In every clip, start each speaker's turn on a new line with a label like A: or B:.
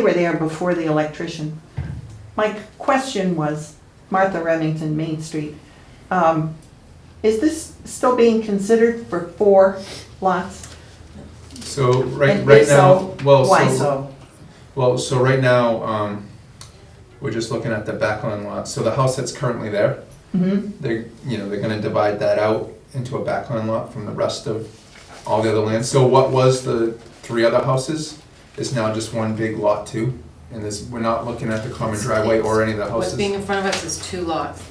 A: They were there before the electrician. My question was, Martha Remington, Main Street, um, is this still being considered for four lots?
B: So right,
A: And
B: right
A: if
B: now,
A: so,
B: well,
A: Why
B: so,
A: so?
B: well, so right now, um, we're just looking at the backland lot. So the house that's currently there,
C: Mm-hmm.
A: Mhm.
B: they're, you know, they're gonna divide that out into a backland lot from the rest of all the other land. So what was the three other houses is now just one big lot two. And this, we're not looking at the common driveway or any of the
D: What's being
B: houses.
D: in front of us is two lots,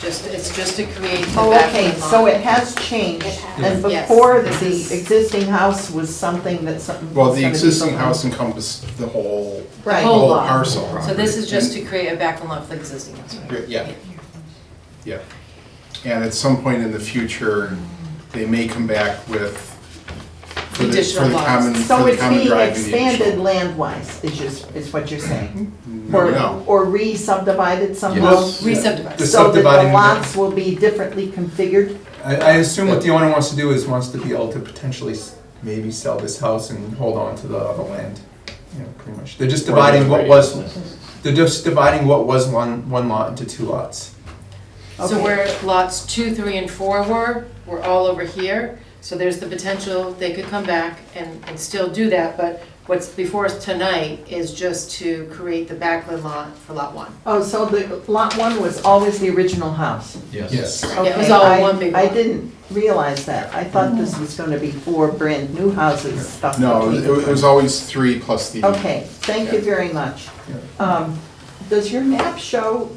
D: just, it's just to create the
A: Oh, okay,
D: back
A: so
D: lot.
A: it has changed.
C: It has.
A: And
D: Yes.
A: before, the
D: This is-
A: existing house was something that something.
E: Well,
A: was
E: the
A: gonna be
E: existing
A: built on.
E: house Oh. encompassed the whole, the
A: Right.
D: Whole
E: whole
D: lot.
E: parcel.
D: So this is just
E: And-
D: to create a back lot for the existing house, right?
E: Yeah, yeah. And at some point in the future, they may come back with, for the, for
D: Additional
E: the
D: lots.
E: common,
A: So
E: for the
A: it's
E: common
A: being
E: drive. the
A: expanded
E: additional-
A: land-wise, is just, is what you're saying?
E: No,
A: Or,
E: no.
A: or re-subdivided somehow?
B: Yes.
D: Re-subdivided.
B: Just
A: So that
B: subdividing
A: the
B: the-
A: lots will be differently configured?
B: I, I assume what the owner wants to do is wants to be able to potentially s- maybe sell this house and hold on to the other land. You know, pretty much. They're just dividing what was, they're just dividing what was one, one lot into two lots.
A: Okay.
D: So where lots two, three, and four were, were all over here, so there's the potential they could come back and, and still do that, but what's before us tonight is just to create the back lot for lot one.
A: Oh, so the lot one was always the original house?
B: Yes.
D: Yeah, it was
A: Okay,
D: all
A: I-
D: one big
A: I
D: lot. Mm.
A: didn't realize that. I thought this was gonna be four brand-new houses stuck
E: No,
A: between.
E: it was- it was always three plus the.
A: Okay, thank you very much. Um, Does your map show,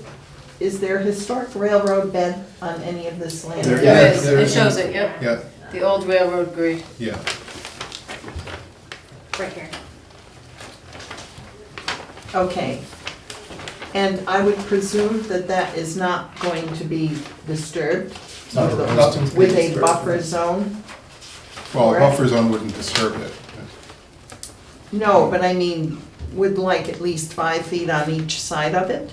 A: is there a historic railroad bed on any of this land?
E: There
D: It
E: Yeah,
D: is,
E: there
D: it
E: is.
D: shows it, yep,
E: Yeah,
D: the old railroad grade.
E: yeah.
C: Right here.
A: Okay. And I would presume that that is not going to be disturbed
B: Nothing's being
A: with a
B: disturbed.
A: buffer zone?
E: Well, a
A: Right.
E: buffer zone wouldn't disturb it.
A: No, but I mean, would like at least five feet on each side of it?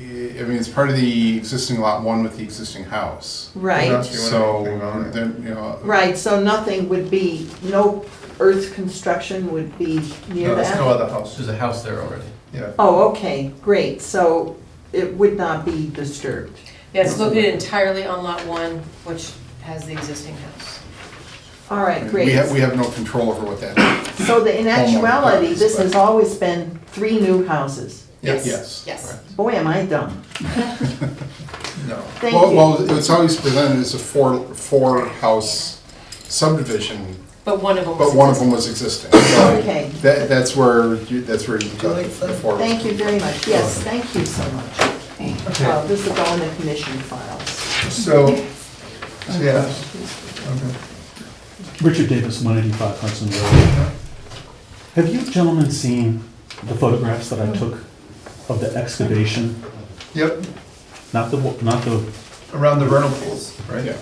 E: I mean, it's part of the existing lot one with the existing house.
A: Right,
B: That's-
E: So,
B: Anything on it.
E: then, you know.
A: right, so nothing would be, no earth construction would be near
B: No, there's no
A: that?
B: other house,
F: There's a house there already.
B: yeah.
A: Oh, okay, great, so it would not be disturbed.
D: Yeah, it's located entirely on lot one, which has the existing house.
A: All right,
E: We have, we
A: great.
E: have no control over what that,
A: So the in actuality, this has always been three new houses.
E: yes.
D: Yes.
A: Boy, am I dumb.
B: No.
A: Thank
E: Well,
A: you.
E: well, it's always presented as a four, four-house subdivision,
D: But one of them was.
E: but one of them was existing.
A: Okay.
E: That, that's where, you- that's where you got the four.
A: Thank you very much. Yes, thank you so much. Uh, This will go in the commission files.
B: So, yeah. Okay.
G: Richard Davis, 185 Hudson Road. Have you gentlemen seen the photographs that I took of the excavation?
B: Yep,
G: Not the, wa- not the.
B: around the vernal pools, right?
E: Yeah.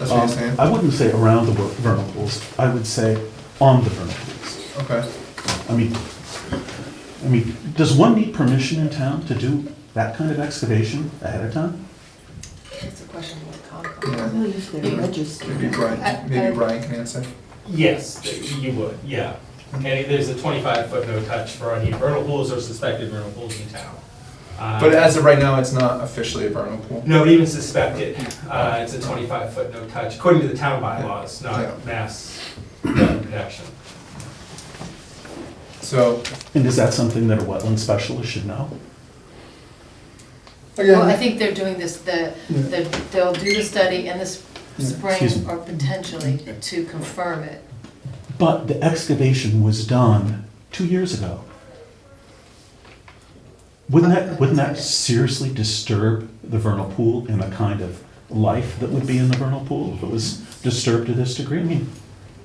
B: That's what you're
G: um,
B: saying?
G: I wouldn't say around the ver- vernal pools, I would say on the vernal pools.
B: Okay.
G: I mean, I mean, does one need permission in town to do that kind of excavation ahead of time?
D: That's a question with the Concom.
B: Yeah.
A: Really, if they're registered.
B: Maybe
D: I-
B: Brian,
D: I-
B: maybe Brian can answer.
H: Yes, you would, yeah. And there's a 25-foot no touch for any vernal pools or suspected vernal pools in town. Uh,
B: But as of right now, it's not officially a vernal pool.
H: Nobody even suspected. Uh, It's a 25-foot no touch, according to the town bylaws,
B: Yeah.
H: not mass protection.
B: So,
G: And is that something that a wetland specialist should know?
D: Well, I
B: again,
D: think they're doing this, the,
B: Oh, Yeah.
D: the- they'll do the study in the s-
G: Excuse
D: spring
G: me.
D: or potentially to confirm it.
G: But the excavation was done two years ago. Wouldn't that, wouldn't that seriously disturb the vernal pool and the kind of life that would be in the vernal pool if it was disturbed to this degree? I mean,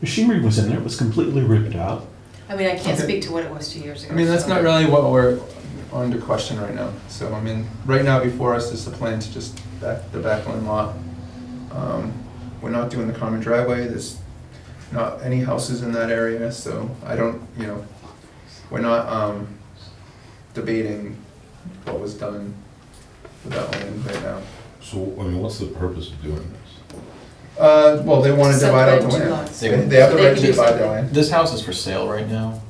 G: machinery was in there, it was completely ripped out.
D: I mean, I can't
B: Okay.
D: speak to what it was two years ago.
B: I mean, that's
D: so-
B: not really what we're under question right now. So, I mean, right now before us is the plan to just back the backland lot. Um, We're not doing the common driveway, there's not any houses in that area, so I don't, you know, we're not um, debating what was done with that land right now.
I: So, I mean, what's the purpose of doing this?
B: Uh, well, they want to divide out the
D: Subdivide two
B: land.
D: lots.
B: They they have
D: So
B: the
D: they
B: right
D: could
B: to
D: do
B: divide the
D: something.
B: land.
C: This house is for sale right now.